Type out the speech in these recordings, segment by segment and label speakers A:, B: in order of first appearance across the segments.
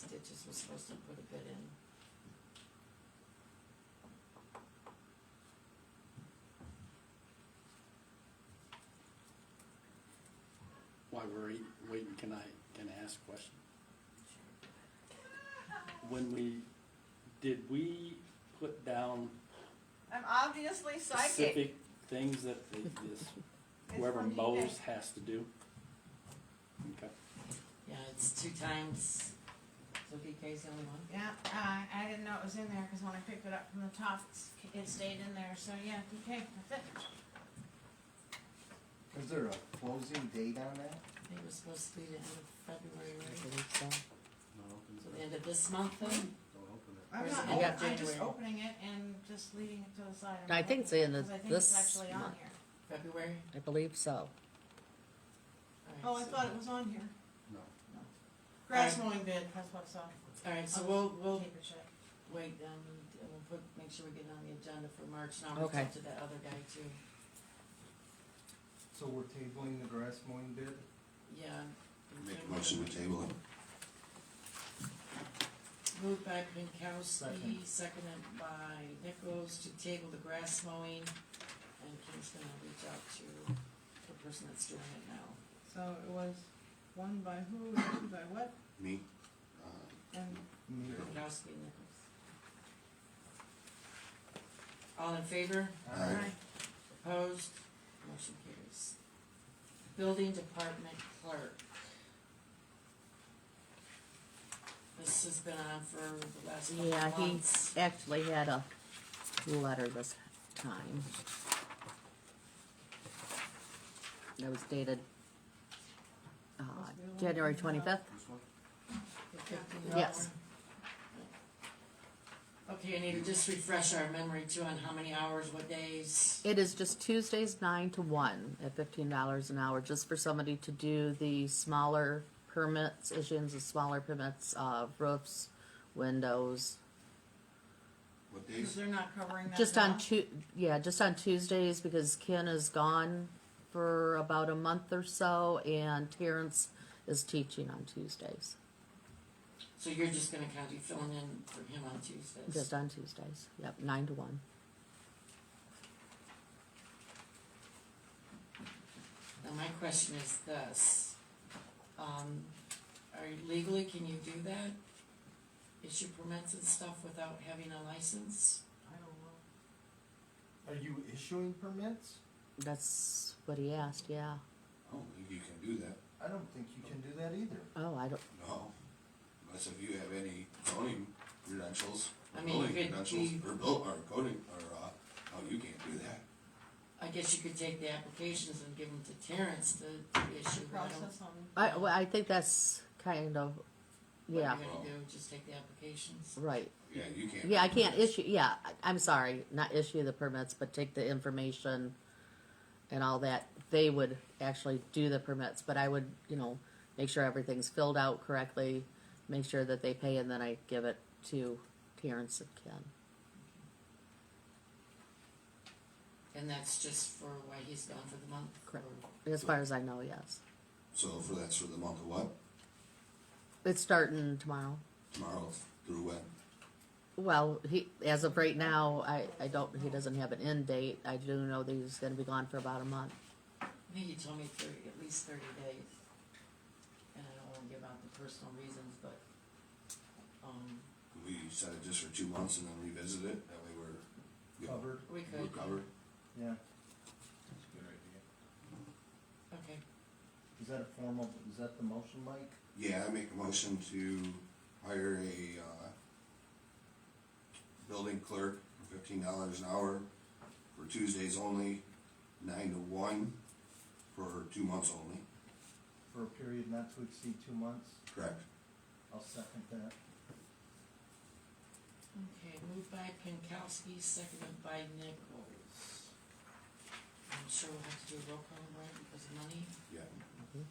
A: Stitches was supposed to put a bid in.
B: While we're eat- waiting, can I, can I ask a question? When we, did we put down
C: I'm obviously psychic.
B: specific things that the- this,
C: It's
B: whoever
C: from eBay.
B: mows has to do? Okay.
A: Yeah, it's two times, so BK's the only one.
C: Yeah, uh, I didn't know it was in there, cause when I picked it up from the top, it's- it stayed in there, so yeah, okay, that's it.
D: Is there a closing date on that?
A: I think it was supposed to be the end of February,
E: I
A: right?
E: believe so.
B: Don't open
A: So the end of this month then?
B: don't open it.
C: I'm
A: Where's
C: not,
A: it? I got
C: open- I'm just
A: January.
C: opening it and just leaving it to the side.
E: I think it's in the-
C: 'Cause I think
E: this
C: it's actually on
E: month.
C: here.
A: February?
E: I believe so.
A: Alright,
C: Oh, I
A: so-
C: thought it was on here.
B: No.
C: Grass mowing bid, that's what I saw.
A: Alright, so
C: I'll
A: we'll, we'll
C: Keep it shut.
A: wait, um, and we'll put, make sure we get it on the agenda for March, now we'll
E: Okay.
A: talk to that other guy too.
D: So we're tabling the grass mowing bid?
A: Yeah.
F: Make a motion to table it.
A: Moved by Pinkowski, seconded by Nichols to table the grass mowing, and Kim's gonna reach out to the person that's doing it now.
C: So it was one by who, two by what,
F: Me? Uh,
C: and
D: Me?
A: Pinkowski and Nichols. All in favor?
F: Aye.
A: Opposed? Motion carries. Building Department Clerk. This has been on for the last couple
E: Yeah,
A: of
E: he
A: months.
E: actually had a letter this time. That was dated, uh, January twenty-fifth.
F: This one?
A: The $15.
E: Yes.
A: Okay, I need to just refresh our memory too on how many hours, what days.
E: It is just Tuesdays nine to one at fifteen dollars an hour, just for somebody to do the smaller permits, issuance of smaller permits, uh, roofs, windows.
F: What
C: because
F: days?
C: they're not covering that.
E: Just on
C: now.
E: Tu- yeah, just on Tuesdays because Ken is gone for about a month or so and Terrence is teaching on Tuesdays.
A: So you're just gonna kind of be filling in for him on Tuesdays.
E: Just on Tuesdays. Yep, nine to one.
A: Now, my question is this, um, are you- legally, can you do that? Issue permits and stuff without having a license?
C: I don't know.
D: Are you issuing permits?
E: That's what he asked, yeah.
F: I don't think "Oh, you can do that,
D: I don't think you can do that either.
E: Oh, I don't
F: no. Unless if you have any zoning credentials,
A: I
F: or
A: mean,
F: building
A: could
F: credentials,
A: we-
F: or build, or coding, or, uh, no, you can't do that.
A: I guess you could take the applications and give them to Terrence to to issue, but I don't-
C: Process on.
E: I well, I think that's kind of
A: what
E: yeah,
A: are you gonna do, just take the applications?
E: right.
F: Yeah, you can't.
E: Yeah, I
F: do
E: can't
F: this.
E: issue yeah, I- I'm sorry, not issue the permits, but take the information and all that. They would actually do the permits, but I would, you know, make sure everything's filled out correctly, make sure that they pay and then I give it to Terrence and Ken.
A: And that's just for why he's gone for the month? or-
E: Correct. As far as I know, yes.
F: So for that's for the month of what?
E: It's starting tomorrow.
F: Tomorrow through when?
E: Well, he, as of right now, I, I don't, he doesn't have an end date. I do know that he's gonna be gone for about a month.
A: I think he told me thirty, at least thirty days. And I don't wanna give out the personal reasons, but, um,
F: We set it just for two months and then revisit it, that way we're.
D: Covered?
A: we
F: We're
A: could,
F: covered.
D: Yeah.
A: okay.
D: Is that a formal, is that the motion, Mike?
F: Yeah, I make a motion to hire a, uh, building clerk for fifteen dollars an hour for Tuesdays only, nine to one, for two months only.
D: For a period not to exceed two months?
F: Correct.
D: I'll second that.
A: Okay, moved by Pinkowski, seconded by Nichols. I'm sure we'll have to do a roll call, right, because of money?
F: Yeah.
E: Mhm.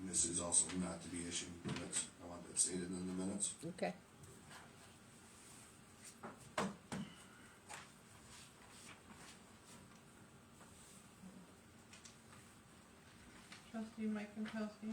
F: And this is also not to be issued minutes. I want that stated in the minutes.
E: Okay.
C: Trustee Mike Jack Pankowski.